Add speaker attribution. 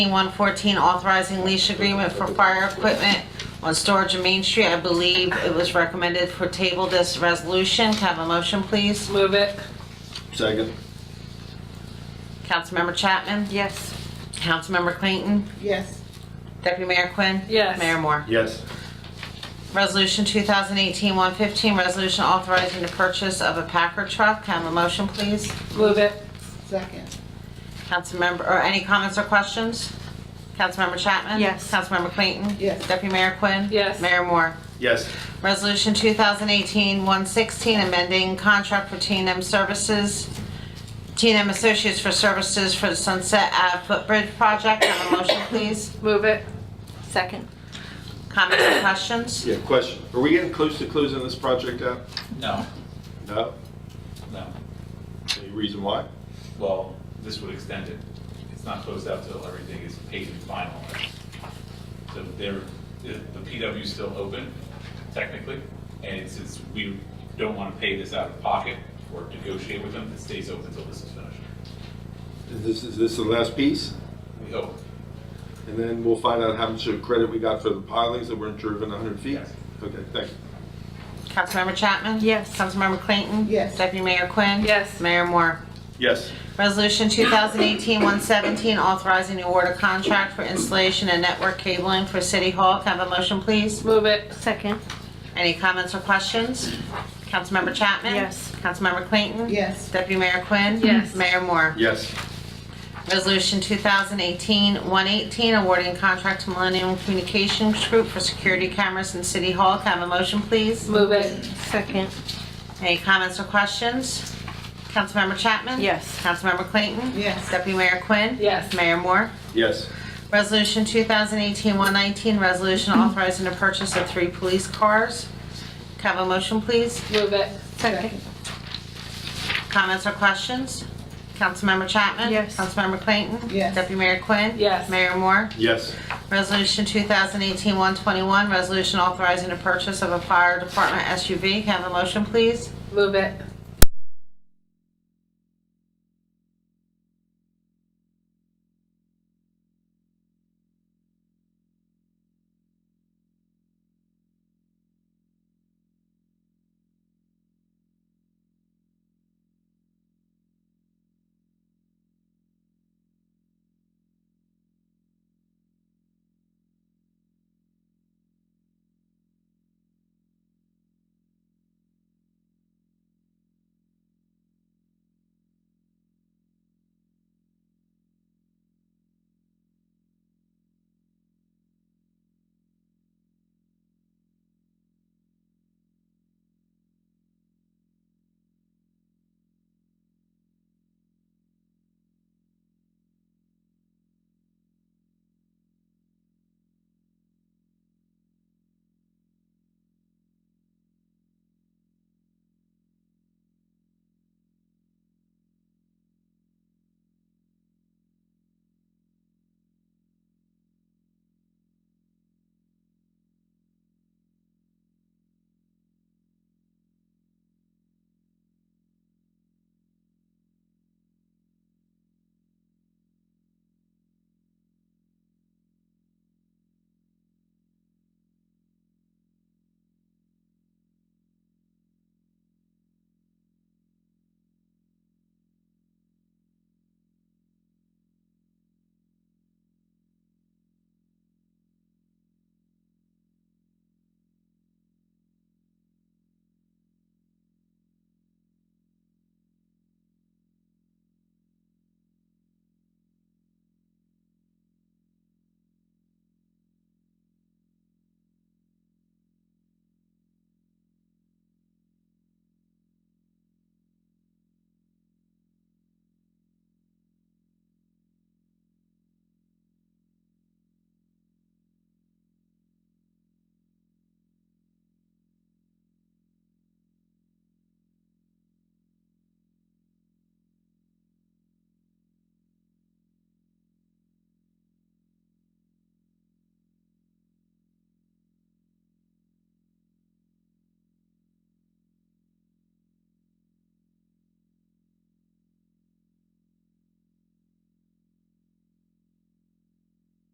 Speaker 1: 114, authorizing lease agreement for fire equipment on storage in Main Street. I believe it was recommended for table this resolution. Can I have a motion, please?
Speaker 2: Move it.
Speaker 3: Second.
Speaker 1: Councilmember Chapman?
Speaker 2: Yes.
Speaker 1: Councilmember Clayton?
Speaker 4: yes,
Speaker 1: Deputy Mayor Quinn?
Speaker 2: Yes.
Speaker 1: Mayor Moore?
Speaker 3: Yes.
Speaker 1: Resolution 2018-115, resolution authorizing the purchase of a Packer truck. Can I have a motion, please?
Speaker 2: Move it.
Speaker 4: second,
Speaker 1: Councilmember, or any comments or questions? Councilmember Chapman?
Speaker 2: Yes.
Speaker 1: Councilmember Clayton?
Speaker 4: Yes.
Speaker 1: Deputy Mayor Quinn?
Speaker 2: Yes.
Speaker 1: Mayor Moore?
Speaker 3: Yes.
Speaker 1: Resolution 2018-116, amending contract for t and m Services, t and m Associates for services for the Sunset Ave Footbridge Project. Can I Have a motion, please?
Speaker 2: Move it. Second.
Speaker 1: Comments or questions?
Speaker 3: Yeah, question. Are we getting close to closing this project out?
Speaker 5: No,
Speaker 3: No?
Speaker 5: no.
Speaker 3: Any reason why?
Speaker 5: Well, this would extend it. It's not closed out till everything is paid and finalized. So there, the the PW is still open technically, and since we don't want to pay this out of pocket or negotiate with them, it stays open until this is finished.
Speaker 3: Is this, is this the last piece?
Speaker 5: We hope.
Speaker 3: And then we'll find out how much of credit we got for the pilings that weren't driven 100 feet?
Speaker 5: Yes.
Speaker 3: Okay, thank you.
Speaker 1: Councilmember Chapman?
Speaker 2: Yes.
Speaker 1: Councilmember Clayton?
Speaker 4: Yes.
Speaker 1: Deputy Mayor Quinn?
Speaker 2: Yes.
Speaker 1: Mayor Moore?
Speaker 3: Yes.
Speaker 1: Resolution 2018-117, authorizing the award of contract for installation and network cabling for City Hall. Can I have a motion, please?
Speaker 2: Move it. Second.
Speaker 1: Any comments or questions? Councilmember Chapman?
Speaker 2: Yes.
Speaker 1: Councilmember Clayton?
Speaker 4: yes,
Speaker 1: Deputy Mayor Quinn?
Speaker 2: Yes.
Speaker 1: Mayor Moore?
Speaker 3: Yes.
Speaker 1: Resolution 2018-118, awarding contract to Millennium Communications Group for security cameras in City Hall. Can I have a motion, please?
Speaker 2: Move it. Second.
Speaker 1: Any comments or questions? Councilmember Chapman?
Speaker 2: Yes.
Speaker 1: Councilmember Clayton?
Speaker 4: Yes.
Speaker 1: Deputy Mayor Quinn?
Speaker 2: Yes.
Speaker 1: Mayor Moore?
Speaker 3: Yes.
Speaker 1: Resolution 2018-119, resolution authorizing the purchase of three police cars. Can I have a motion, please?
Speaker 2: Move it. Second.
Speaker 1: Comments or questions? Councilmember Chapman?
Speaker 2: Yes.
Speaker 1: Councilmember Clayton?
Speaker 4: Yes.
Speaker 1: Deputy Mayor Quinn?
Speaker 2: Yes.
Speaker 1: Mayor Moore?
Speaker 3: Yes.
Speaker 1: Resolution 2018-121, resolution authorizing the purchase of a fire department SUV. Can I have a motion, please?
Speaker 2: Move it.